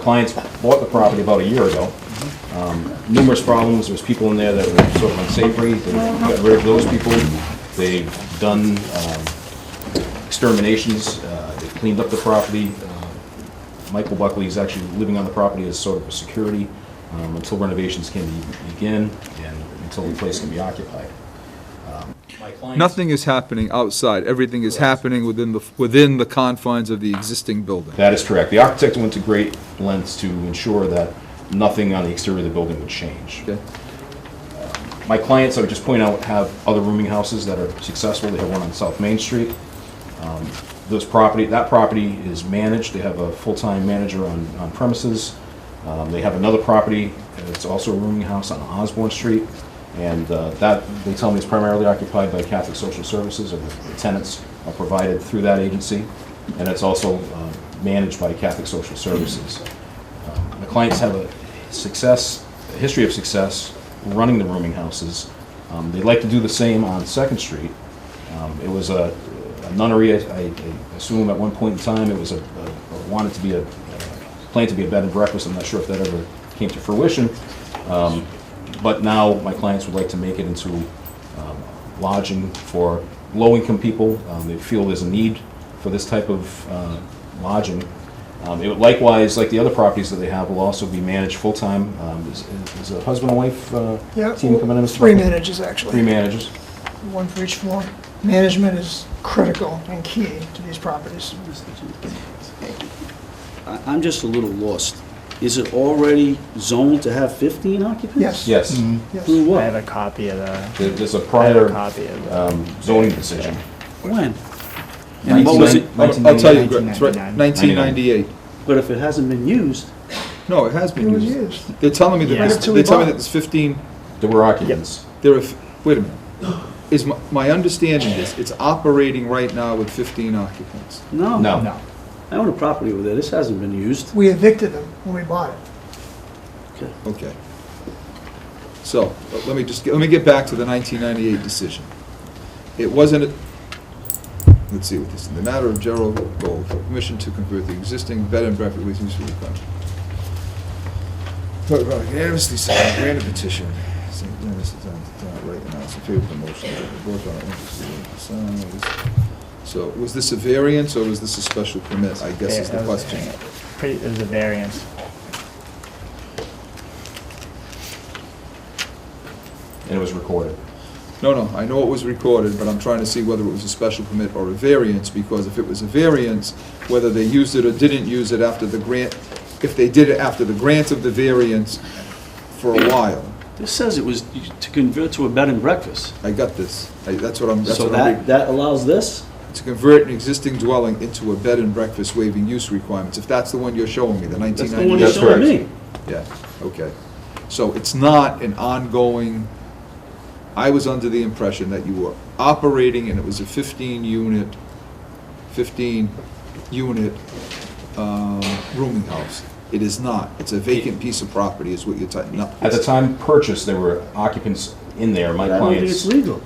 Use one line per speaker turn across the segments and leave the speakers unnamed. clients bought the property about a year ago. Um, Numerous problems, there was people in there that were sort of unsavory, they got rid of those people. They've done um, exterminations, uh, they've cleaned up the property. Uh, Michael Buckley is actually living on the property as sort of a security um, until renovations can be- begin and until the place can be occupied. Um, my clients-
Nothing is happening outside, everything is happening within the, within the confines of the existing building.
That is correct. The architect went to great lengths to ensure that nothing on the exterior of the building would change.
Okay.
My clients, I would just point out, have other rooming houses that are successful. They have one on South Main Street. Um, Those property, that property is managed. They have a full-time manager on on premises. Um, They have another property, and it's also a rooming house on Osborne Street. And uh, that, they tell me is primarily occupied by Catholic Social Services, and the tenants are provided through that agency. And it's also uh, managed by Catholic Social Services. My clients have a success, a history of success running the rooming houses. Um, They'd like to do the same on Second Street. Um, It was a a nunnery, I- I I assume at one point in time, it was a, a- wanted to be a, planned to be a bed and breakfast, I'm not sure if that ever came to fruition. Um, But now, my clients would like to make it into um, lodging for low-income people. Um, They feel there's a need for this type of uh, lodging. Um, It would likewise, like the other properties that they have, will also be managed full-time. Um, Is is a husband and wife uh,
Yeah,
team coming in? Mr.
three
Buckley?
managers,
Three
actually,
managers.
one for each floor. Management is critical and key to these properties.
I- I'm just a little lost. Is it already zoned to have 15 occupants?
Yes.
Yes.
Through
Yes.
I have
what?
a copy of the,
There- There's a
I have
prior
a copy of the,
um, zoning decision.
When? And what Oh, was it,
I'll I'll tell you, Greg, it's right,
1999.
1998.
but if it hasn't been used,
No, it has
It
been
was
used.
used.
They're telling me that,
Yeah.
there's-
Right up till
they're
we
telling me
bought.
that there's 15,
There were occupants.
there are, f- wait a minute. Is my, my understanding is, it's operating right now with 15 occupants.
no.
No.
no,
I own a property over there, this hasn't been used.
We evicted them when we bought it.
Okay.
Okay. So, let- let me just, get- let me get back to the 1998 decision. It wasn't, a- let's see what this, in the matter of Gerald Gold, for permission to convert the existing bed and breakfast leasing to the county. Vote by unanimously signed, grant a petition. St. Dennis is on the top right now, it's in favor of the motion. The board on it, this is the sign. So, was this a variance or was this a special permit, I guess is the
That was a
question.
pretty, it was a variance.
And it was recorded.
No, no, I know it was recorded, but I'm trying to see whether it was a special permit or a variance, because if it was a variance, whether they used it or didn't use it after the grant, if they did it after the grant of the variance for a while,
This says it was to convert to a bed and breakfast.
I got this. I- That's what I'm, that's
So
what I'm
that,
reading.
that allows this?
To convert an existing dwelling into a bed and breakfast waiving use requirements, if that's the one you're showing me, the
That's the one
1990.
you're
That's
showing
correct.
me.
Yeah, okay. So it's not an ongoing, I was under the impression that you were operating and it was a fifteen unit, fifteen unit, um, rooming house. It is not. It's a vacant piece of property is what you're talking, no.
At the time purchase, there were occupants in there, my
But I don't think it's
clients.
legal.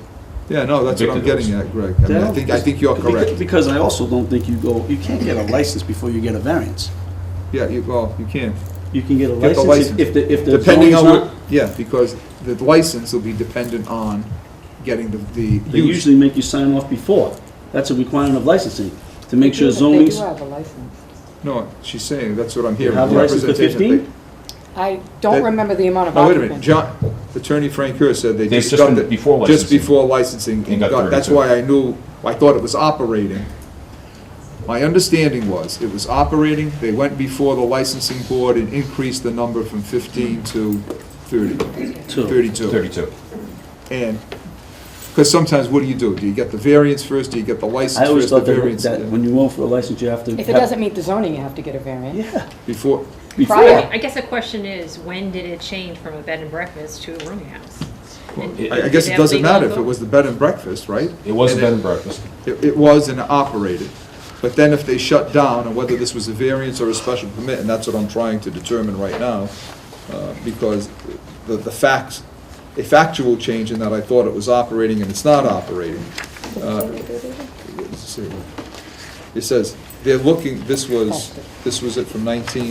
Yeah, no, that's what I'm
Evicted
getting at, Greg. I mean, I think, I think you're
Because-
correct.
Because I also don't think you go, you can't get a license before you get a variance.
Yeah, you, well, you can.
You can get a
Get the
license if- if the, if the
Depending
zoning's
on,
not,
what- yeah, because the license will be dependent on getting the, the.
they
use.
usually make you sign off before. That's a requirement of licensing, to make sure
They
zoning's.
do have a license.
No, she's saying, that's what I'm hearing.
have license for
Representation, they-
15?
I
They-
don't remember the amount of
Oh,
No, wait a minute,
occupants.
John, Attorney Frank Kerr said they
They've
just
just
got
been
it.
before
Just
licensing.
before licensing,
And
and
got
got, that's
32.
why I knew, I thought it was operating. My understanding was, it was operating, they went before the licensing board and increased the number from fifteen to thirty.
Two.
Thirty-two.
Thirty-two.
And, because sometimes what do you do? Do you get the variance first, do you get the
I
license
always
first, the
thought that,
variance?
that
yeah.
when you go for a license, you have to.
If it doesn't meet the zoning, you have to get a variance.
Yeah,
Before,
Prior.
before.
I guess the question is, when did it change from a bed and breakfast to a rooming house? And
I I
did
guess it
have
doesn't
legal
matter if it
vote?
was the bed and breakfast, right?
It was a
And
bed and breakfast.
It, it was and it operated. But then if they shut down, and whether this was a variance or a special permit, and that's what I'm trying to determine right now, uh, because the, the facts, a factual change in that I thought it was operating and it's not operating. Uh, let's see. It says, they're looking, this was, this was it from nineteen